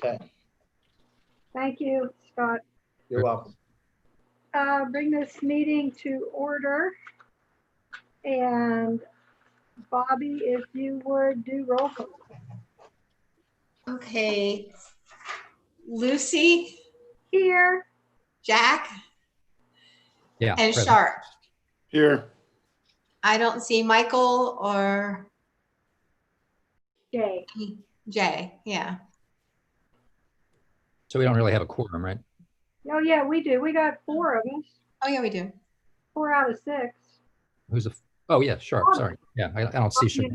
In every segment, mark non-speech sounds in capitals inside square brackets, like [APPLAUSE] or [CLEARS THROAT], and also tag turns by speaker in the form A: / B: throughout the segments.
A: Okay,
B: Thank you, Scott.
A: you're welcome.
B: Uh, Bring this meeting to order. And Bobby, if you would do roll call.
C: Okay. Lucy,
B: Here,
C: Jack,
D: Yeah.
C: and
D: present.
C: Sharp.
A: Here.
C: I don't see Michael or
B: Jay.
C: Jay. Yeah.
D: So we don't really have a quorum, right?
B: Oh, yeah, we do. We got four of us,
C: Oh, yeah, we do.
B: four out of six.
D: Who's the, oh, yeah, Sharp,
B: Oh.
D: sorry. Yeah, I I don't see Sharp.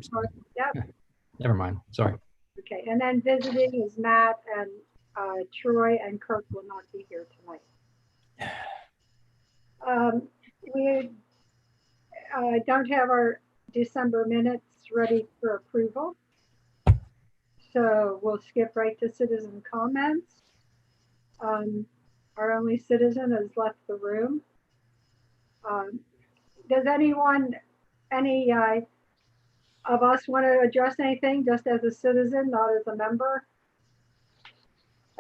B: Yep,
D: [LAUGHS] Never mind, sorry.
B: okay. And then visiting is Matt and uh, Troy and Kirk will not be here tonight. Um, We uh, don't have our December minutes ready for approval. So we'll skip right to citizen comments. Um, Our only citizen has left the room. Um, Does anyone, any uh, of us want to address anything just as a citizen, not as a member?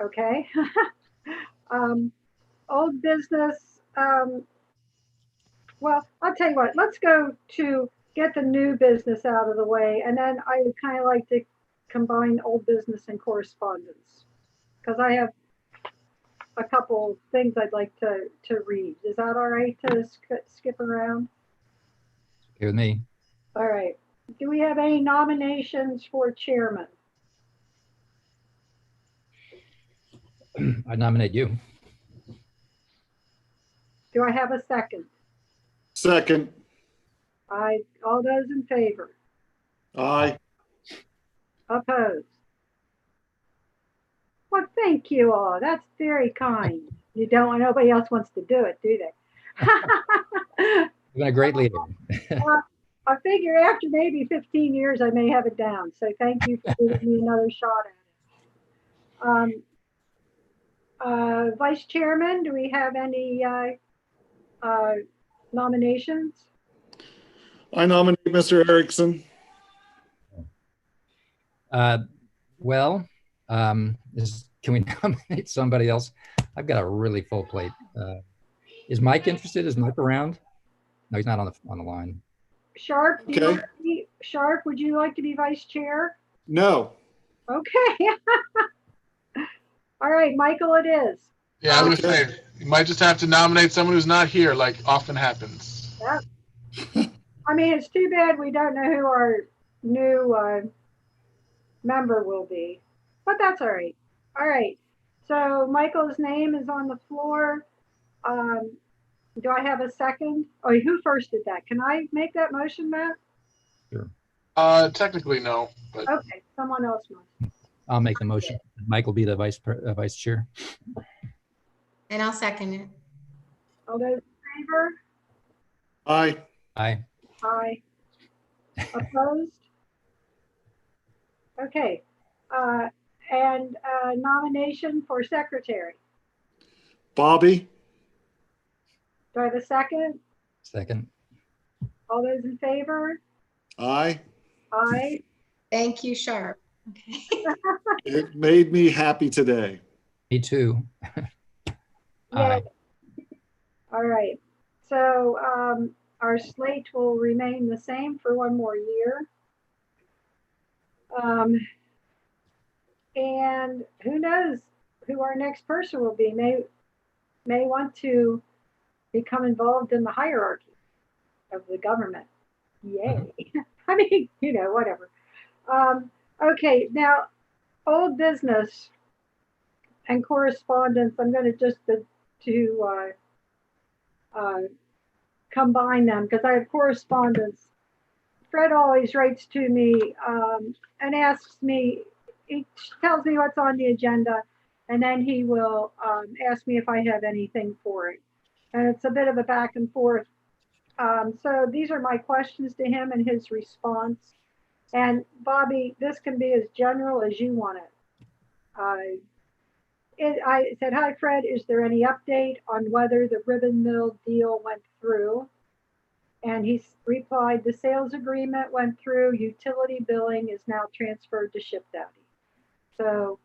B: Okay. [LAUGHS] Um, Old business, um, well, I'll tell you what, let's go to get the new business out of the way, and then I would kind of like to combine old business and correspondence. Because I have a couple things I'd like to, to read. Is that all right to sk- skip around?
D: Okay with me. [CLEARS THROAT]
B: All right. Do we have any nominations for chairman?
D: I nominate you.
B: Do I have a second?
E: Second,
B: I, all those in favor?
E: aye.
B: Opposed? Well, thank you all. That's very kind. You don't, nobody else wants to do it, do they?
D: You've been a great leader.
B: [LAUGHS] I figure after maybe 15 years, I may have it down. So thank you for giving me another shot at it. Um, uh, Vice Chairman, do we have any uh, uh, nominations?
E: I nominate Mr. Erickson.
D: Uh, Well, um, is, can we [LAUGHS] nominate somebody else? I've got a really full plate. Uh, Is Mike interested? Is Mike around? No, he's not on the, on the line.
B: Sharp, do you
E: Okay.
B: want to be- Sharp, would you like to be Vice Chair?
E: No,
B: Okay. [LAUGHS] All right, Michael, it is.
F: Yeah, I was gonna
E: Okay.
F: say, you might just have to nominate someone who's not here, like often happens.
B: I mean, it's too bad we don't know who our new uh, member will be, but that's all right. All right. So Michael's name is on the floor. Um, do I have a second? Oh, who first did that? Can I make that motion, Matt?
F: Uh, technically, no, but
B: Okay, someone else must.
D: I'll make the motion. Mike will be the vice, pre- uh, vice chair.
C: And I'll second it.
B: All those in favor?
E: aye.
D: Aye.
B: Aye. Opposed? Okay, uh, and uh, nomination for secretary.
E: Bobby,
B: Do I have a second?
D: second.
B: All those in favor?
E: aye.
B: Aye.
C: Thank you, Sharp. Okay.
E: It made me happy today.
D: Me too. Aye.
B: All right, so um, our slate will remain the same for one more year. Um, And who knows who our next person will be, may, may want to become involved in the hierarchy of the government. Yay, [LAUGHS] I mean, you know, whatever. Um, Okay, now, old business and correspondence, I'm going to just, the to uh, uh, combine them because I have correspondence. Fred always writes to me um, and asks me, he tells me what's on the agenda, and then he will um, ask me if I have anything for it. And it's a bit of a back and forth. Um, so these are my questions to him and his response. And Bobby, this can be as general as you want it. Uh, it, I said, hi, Fred, is there any update on whether the ribbon mill deal went through? And he s- replied, the sales agreement went through, utility billing is now transferred to Ship Daddy. So